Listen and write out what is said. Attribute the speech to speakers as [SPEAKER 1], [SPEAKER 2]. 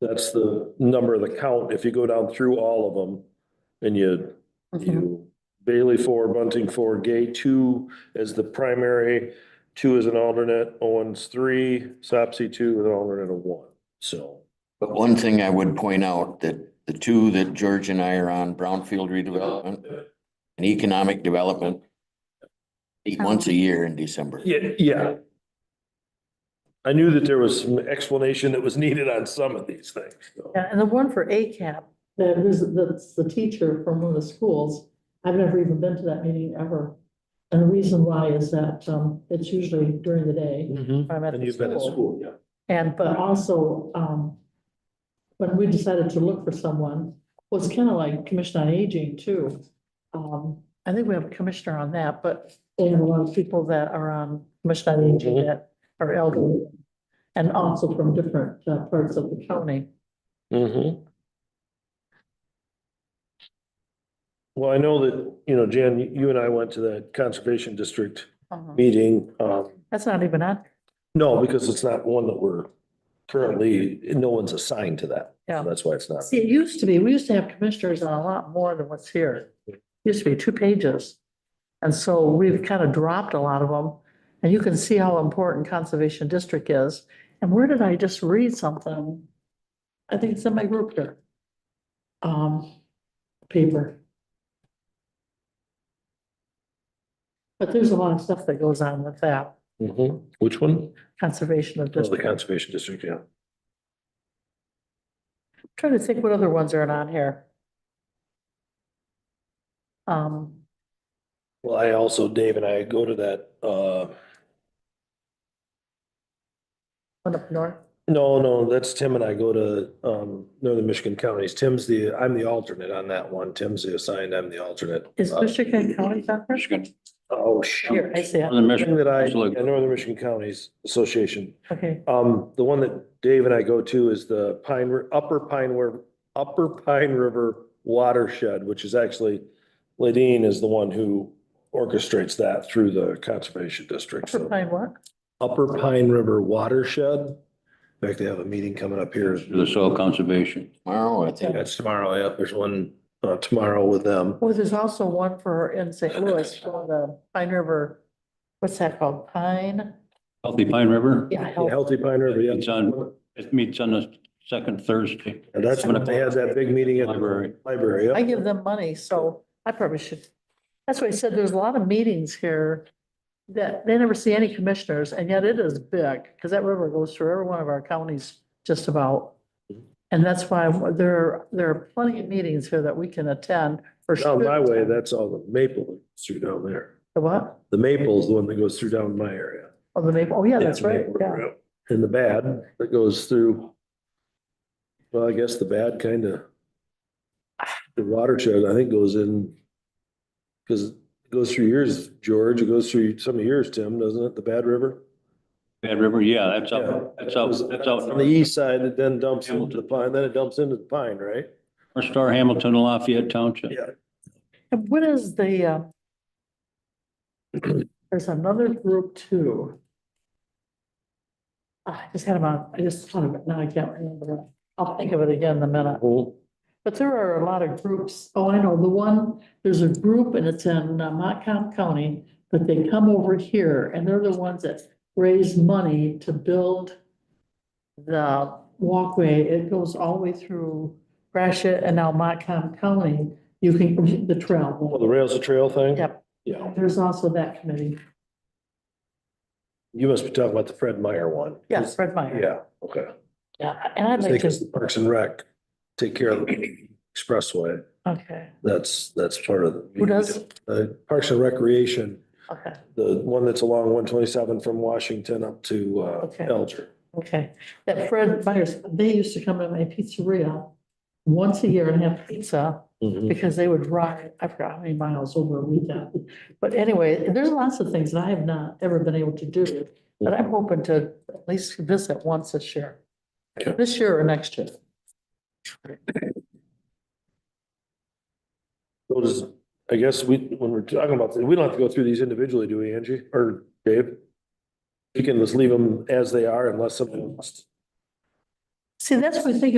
[SPEAKER 1] That's the number of the count. If you go down through all of them and you,
[SPEAKER 2] Mm-hmm.
[SPEAKER 1] you Bailey four, Bunting four, Gay two as the primary, two as an alternate, Owens three, Sopsey two, and an alternate of one. So
[SPEAKER 3] But one thing I would point out that the two that George and I are on, brownfield redevelopment and economic development. Meet once a year in December.
[SPEAKER 1] Yeah, yeah. I knew that there was some explanation that was needed on some of these things. so.
[SPEAKER 2] Yeah, and the one for ACAP, that is, that's the teacher from one of the schools. I've never even been to that meeting ever. And the reason why is that, um, it's usually during the day. I'm at
[SPEAKER 1] And
[SPEAKER 2] the
[SPEAKER 1] you've been at
[SPEAKER 2] school.
[SPEAKER 1] school, yeah.
[SPEAKER 2] And, but also, um, when we decided to look for someone, was kind of like Commission on Aging too. Um, I think we have a commissioner on that, but they have a lot of people that are on Commission on
[SPEAKER 1] Mm-hmm.
[SPEAKER 2] Aging that are elderly. And also from different uh, parts of the county.
[SPEAKER 1] Mm-hmm. Well, I know that, you know, Jan, you and I went to that conservation district meeting. Um,
[SPEAKER 2] That's not even on,
[SPEAKER 1] no, because it's not one that we're currently, no one's assigned to that. So
[SPEAKER 2] Yeah.
[SPEAKER 1] That's why it's not.
[SPEAKER 2] see, it used to be, we used to have commissioners on a lot more than what's here. Used to be two pages. And so we've kind of dropped a lot of them. And you can see how important Conservation District is. And where did I just read something? I think it's in my group here. Um, paper. But there's a lot of stuff that goes on with that,
[SPEAKER 1] Mhm. Which one?
[SPEAKER 2] conservation of
[SPEAKER 1] Oh, The
[SPEAKER 2] district.
[SPEAKER 1] conservation district, yeah.
[SPEAKER 2] Trying to think what other ones are not here. Um,
[SPEAKER 1] Well, I also, Dave and I go to that, uh,
[SPEAKER 2] one up north,
[SPEAKER 1] No, no, that's Tim and I go to um Northern Michigan counties. Tim's the, I'm the alternate on that one. Tim's the assigned, I'm the alternate.
[SPEAKER 2] is
[SPEAKER 1] Uh,
[SPEAKER 2] Michigan County Center?
[SPEAKER 1] Oh, shoot.
[SPEAKER 2] Here, I see it,
[SPEAKER 4] Northern
[SPEAKER 1] Thing
[SPEAKER 4] Michigan.
[SPEAKER 1] that I,
[SPEAKER 4] Absolutely.
[SPEAKER 1] yeah, Northern Michigan Counties Association.
[SPEAKER 2] okay,
[SPEAKER 1] Um, the one that Dave and I go to is the Pine, Ri- Upper Pine, Ri- Upper Pine River Watershed, which is actually Ladine is the one who orchestrates that through the Conservation District.
[SPEAKER 2] for
[SPEAKER 1] So
[SPEAKER 2] Pine Walk,
[SPEAKER 1] Upper Pine River Watershed. In fact, they have a meeting coming up here.
[SPEAKER 4] To the soil conservation.
[SPEAKER 3] Tomorrow, I think.
[SPEAKER 1] That's tomorrow, yeah, there's one uh tomorrow with them.
[SPEAKER 2] well, Oh, there's also one for in St. Louis, for the Pine River, what's that called, Pine?
[SPEAKER 4] Healthy Pine River.
[SPEAKER 2] Yeah,
[SPEAKER 1] Yeah,
[SPEAKER 2] Health-
[SPEAKER 1] Healthy Pine River,
[SPEAKER 4] It's
[SPEAKER 1] yeah.
[SPEAKER 4] on- It meets on the second Thursday.
[SPEAKER 1] And that's when they had that big meeting at the
[SPEAKER 4] Library.
[SPEAKER 1] library,
[SPEAKER 2] I
[SPEAKER 1] yeah.
[SPEAKER 2] give them money, so I probably should, that's why I said, there's a lot of meetings here that they never see any commissioners, and yet it is big, because that river goes through every one of our counties just about.
[SPEAKER 1] Mm-hmm.
[SPEAKER 2] And that's why there, there are plenty of meetings here that we can attend or.
[SPEAKER 1] Down my
[SPEAKER 2] should
[SPEAKER 1] way,
[SPEAKER 2] attend.
[SPEAKER 1] that's all the maple that's through down there.
[SPEAKER 2] The what?
[SPEAKER 1] The maple's the one that goes through down my area.
[SPEAKER 2] Oh, the maple, oh, yeah, that's
[SPEAKER 1] the
[SPEAKER 2] right,
[SPEAKER 1] Maple
[SPEAKER 2] yeah.
[SPEAKER 1] River, And the bad that goes through. Well, I guess the bad kind of. The watershed, I think, goes in. Because it goes through yours, George, it goes through some of yours, Tim, doesn't it? The Bad River?
[SPEAKER 4] Bad River, yeah, that's
[SPEAKER 1] Yeah.
[SPEAKER 4] out, that's out, that's out.
[SPEAKER 1] On the east side, it then dumps into
[SPEAKER 4] Hamilton.
[SPEAKER 1] the pine, then it dumps into the pine, right?
[SPEAKER 4] North Star Hamilton, Lafayette Township.
[SPEAKER 1] Yeah.
[SPEAKER 2] And what is the, uh, there's another group too. Ah, I just had them on, I just thought of it, now I can't remember. I'll think of it again in a minute. But there are a lot of groups. Oh, I know, the one, there's a group and it's in uh, Montcalm County, but they come over here and they're the ones that raise money to build the walkway. It goes all the way through Gratiot and now Montcalm County. You can, the
[SPEAKER 1] Well,
[SPEAKER 2] trail.
[SPEAKER 1] the rails to trail thing?
[SPEAKER 2] Yep.
[SPEAKER 1] Yeah,
[SPEAKER 2] There's also that committee.
[SPEAKER 1] you must be talking about the Fred Meyer one.
[SPEAKER 2] Yes, Fred Meyer.
[SPEAKER 1] Yeah, okay.
[SPEAKER 2] Yeah, and I'd like
[SPEAKER 1] Take us
[SPEAKER 2] to,
[SPEAKER 1] to Parks and Rec, take care of the expressway.
[SPEAKER 2] okay,
[SPEAKER 1] That's, that's part of. the-
[SPEAKER 2] Who does?
[SPEAKER 1] Uh, Parks and Recreation,
[SPEAKER 2] okay,
[SPEAKER 1] the one that's along one twenty-seven from Washington up to uh,
[SPEAKER 2] Okay.
[SPEAKER 1] Elger.
[SPEAKER 2] okay. That Fred Meyer's, they used to come to my pizzeria once a year and have pizza. because they would ride, I forgot how many miles over a weekend. But anyway, there's lots of things that I have not ever been able to do, but I'm hoping to at least visit once this year.
[SPEAKER 1] Okay.
[SPEAKER 2] This year or next year.
[SPEAKER 1] So does, I guess we, when we're talking about, this, we don't have to go through these individually, do we, Angie or Dave? You can just leave them as they are unless someone wants to
[SPEAKER 2] See, that's what I think